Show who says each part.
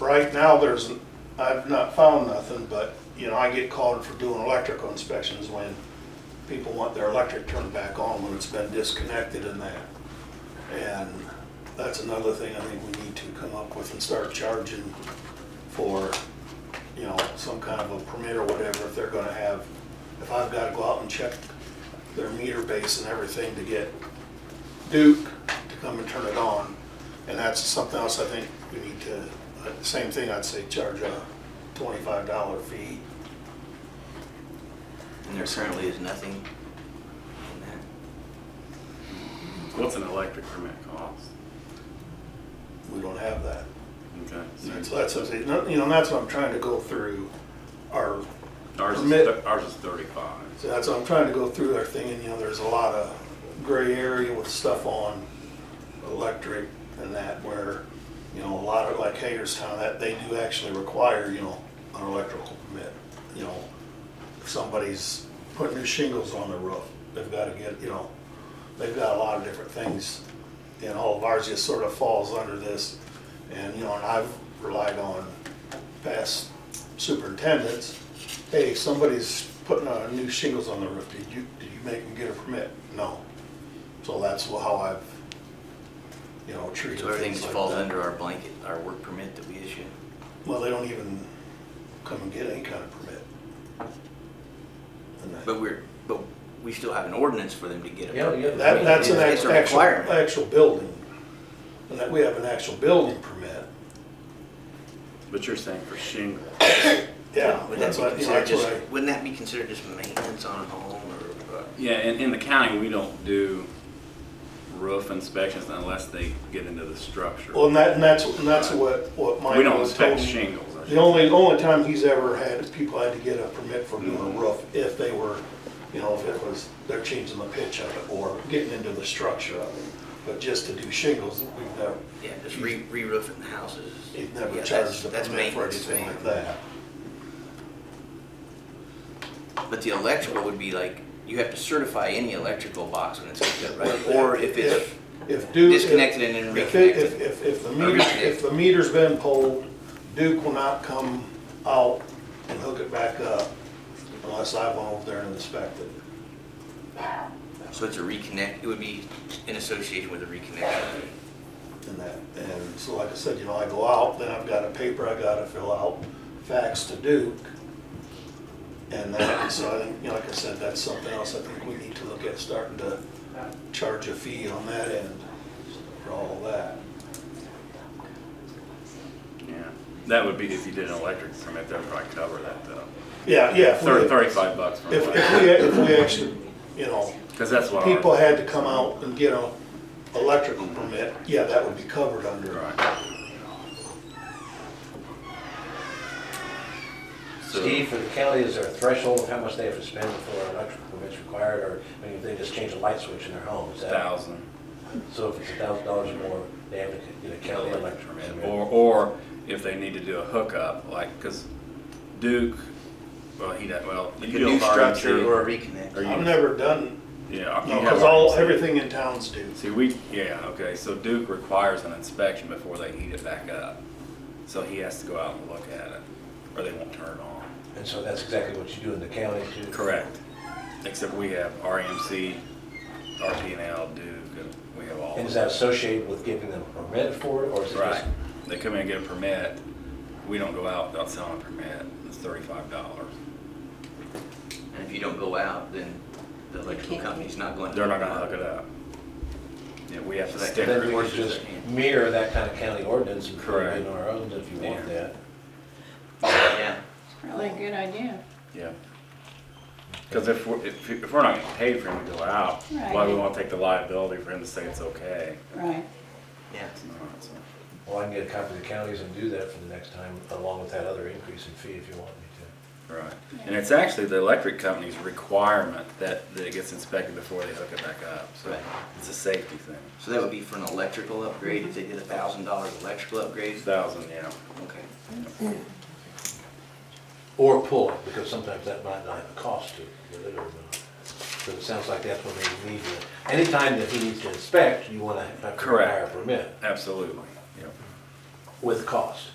Speaker 1: right now, there's, I've not found nothing, but, you know, I get called for doing electrical inspections when people want their electric turned back on when it's been disconnected and that. And that's another thing I think we need to come up with and start charging for, you know, some kind of a permit or whatever if they're gonna have. If I've gotta go out and check their meter base and everything to get Duke to come and turn it on. And that's something else I think we need to, uh, same thing, I'd say charge a twenty-five dollar fee.
Speaker 2: And there certainly is nothing in that.
Speaker 3: What's an electric permit cost?
Speaker 1: We don't have that.
Speaker 3: Okay.
Speaker 1: And
Speaker 3: so
Speaker 1: So that's, what I'm saying. No, you know, and that's what I'm trying to go through our,
Speaker 3: Ours is,
Speaker 1: Permit.
Speaker 3: thir- ours is thirty-five.
Speaker 1: so that's what I'm trying to go through our thing and, you know, there's a lot of gray area with stuff on electric and that where, you know, a lot of, like Hagerstown, that they do actually require, you know, an electrical permit. You know, if somebody's putting new shingles on the roof, they've gotta get, you know, they've got a lot of different things. And all of ours just sort of falls under this. And, you know, and I've relied on past superintendents, hey, somebody's putting uh, new shingles on the roof, did you, did you make them get a permit? No. So that's how I've, you know, treated
Speaker 2: So everything
Speaker 1: things
Speaker 2: just
Speaker 1: like
Speaker 2: falls
Speaker 1: that.
Speaker 2: under our blanket, our work permit that we issue.
Speaker 1: Well, they don't even come and get any kind of permit. And that-
Speaker 2: But we're, but we still have an ordinance for them to get a
Speaker 4: Yeah,
Speaker 2: permit.
Speaker 4: yeah.
Speaker 1: That, that's an
Speaker 2: It's
Speaker 1: act-
Speaker 2: a
Speaker 1: actual,
Speaker 2: requirement.
Speaker 1: actual building. And that, we have an actual building permit.
Speaker 3: But you're saying for shingle.
Speaker 1: Yeah,
Speaker 2: Would that
Speaker 1: that's
Speaker 2: be
Speaker 1: what, you know,
Speaker 2: considered
Speaker 1: that's what
Speaker 2: just,
Speaker 1: I-
Speaker 2: wouldn't that be considered just maintenance on a home or? uh,
Speaker 3: Yeah, in, in the county, we don't do roof inspections unless they get into the structure.
Speaker 1: well, and that, and that's, and that's what, what
Speaker 3: We
Speaker 1: Mike
Speaker 3: don't
Speaker 1: was told
Speaker 3: inspect
Speaker 1: me.
Speaker 3: shingles. I
Speaker 1: The only, only time he's ever had, people had to get a permit for doing a
Speaker 3: Mhm.
Speaker 1: roof if they were, you know, if it was, they're changing the pitch of it or getting into the structure of it. But just to do shingles, we've never,
Speaker 2: Yeah, just re, re-roofing the houses.
Speaker 1: It never
Speaker 2: Yeah,
Speaker 1: charged
Speaker 2: that's
Speaker 1: the
Speaker 2: that's
Speaker 1: permit for
Speaker 2: maintenance.
Speaker 1: anything
Speaker 2: man.
Speaker 1: like that.
Speaker 2: But the electrical would be like, you have to certify any electrical box when it's hooked up, right?
Speaker 1: If-
Speaker 2: Or if it's,
Speaker 1: if Duke-
Speaker 2: disconnected and then
Speaker 1: if it- If,
Speaker 2: reconnected.
Speaker 1: if, if the
Speaker 2: Or
Speaker 1: meter,
Speaker 2: reconnected.
Speaker 1: if the meter's been pulled, Duke will not come out and hook it back up unless I went over there and inspected.
Speaker 2: so it's a reconnect, it would be in association with a reconnection.
Speaker 1: And that, and so like I said, you know, I go out, then I've got a paper I gotta fill out, fax to Duke. And that, so I think, you know, like I said, that's something else I think we need to look at, starting to charge a fee on that end for all of that.
Speaker 3: Yeah, that would be if you did an electric permit, that would probably cover that though.
Speaker 1: Yeah, yeah. if we-
Speaker 3: Thirty, thirty-five bucks for an
Speaker 1: If, if
Speaker 3: electric,
Speaker 1: we, if we actually, you know,
Speaker 3: because that's what. ours-
Speaker 1: people had to come out and get a electrical permit, yeah, that would be covered under.
Speaker 3: Right. So-
Speaker 4: Steve, for the county, is there a threshold of how much they have to spend before an electrical permit's required, or, I mean, if they just change a light switch in their home, is that?
Speaker 3: thousand.
Speaker 4: So if it's a thousand dollars or more, they have to get a county electrical permit?
Speaker 3: Or, or if they need to do a hookup, like, because Duke, well, he doesn't, well. you
Speaker 2: Like a
Speaker 3: do
Speaker 2: new
Speaker 3: RMC.
Speaker 2: structure or a reconnect.
Speaker 3: Or you-
Speaker 1: I've never done,
Speaker 3: Yeah. Uh, you
Speaker 1: no,
Speaker 3: have
Speaker 1: Oh, cause all,
Speaker 3: RMC.
Speaker 1: everything in towns do.
Speaker 3: See, we, yeah, okay, so Duke requires an inspection before they heat it back up. So he has to go out and look at it, or they won't turn it on.
Speaker 4: And so that's exactly what you do in the county too?
Speaker 3: Correct. Except we have RMC, RPNL, Duke, and we have all.
Speaker 4: And is
Speaker 3: of
Speaker 4: that associated with giving them a permit for it, or is it
Speaker 3: them.
Speaker 4: just?
Speaker 3: Right. They come in and get a permit. We don't go out without selling a permit. It's thirty-five dollars.
Speaker 2: And if you don't go out, then the electrical company's not going to.
Speaker 3: They're not gonna hook it up. Yeah, we have to
Speaker 2: So that-
Speaker 3: stick.
Speaker 4: Then we could
Speaker 2: Horses
Speaker 4: just
Speaker 2: that hand.
Speaker 4: mirror that kind of county ordinance and put it
Speaker 3: Correct.
Speaker 4: in our own if you want
Speaker 3: Yeah.
Speaker 4: that.
Speaker 2: Yeah,
Speaker 5: Probably a good idea.
Speaker 3: Yeah. Cause if we're, if, if we're not getting paid for him to go out, why we
Speaker 5: Right.
Speaker 3: wanna take the liability for him to say it's okay?
Speaker 5: Right.
Speaker 2: yeah.
Speaker 3: It's not, so.
Speaker 4: Well, I can get a copy of the counties and do that for the next time, along with that other increase in fee if you want me to.
Speaker 3: Right. And it's actually the electric company's requirement that, that it gets inspected before they hook it back up, so
Speaker 2: Right.
Speaker 3: it's a safety thing.
Speaker 2: So that would be for an electrical upgrade, if they did a thousand dollar electrical upgrade?
Speaker 3: Thousand, yeah.
Speaker 2: Okay.
Speaker 4: Or pull it, because sometimes that might not have a cost to, it, whether or not. So it sounds like that's when they need to, anytime that he needs to inspect, you wanna have to require a
Speaker 3: Correct.
Speaker 4: permit
Speaker 3: Absolutely, yep.
Speaker 4: with cost.